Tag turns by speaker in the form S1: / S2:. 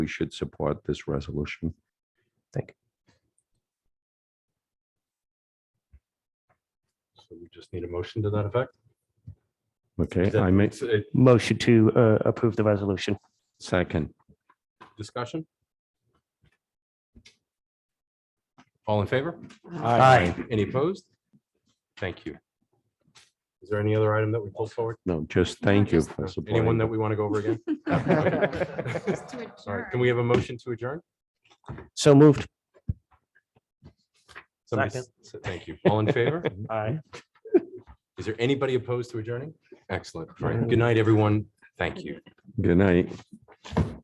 S1: we should support this resolution.
S2: So we just need a motion to that effect?
S1: Okay,
S2: Is that-
S1: I make
S2: it's a
S3: Motion to uh, approve the resolution.
S1: second.
S2: Discussion? All in favor?
S3: Aye.
S2: Any opposed? Thank you. Is there any other item that we pulled forward?
S1: No, just thank you
S4: just-
S1: for supporting.
S2: Anyone that
S1: it.
S2: we want to go over again?
S4: This is to
S2: All right,
S4: adjourn.
S2: can we have a motion to adjourn?
S3: So moved.
S2: Somebody s- s- Thank you. All in favor?
S3: Aye.
S2: Is there anybody
S1: Mm.
S2: opposed to adjourning? Excellent. All right. Good night, everyone. Thank you.
S1: Good night.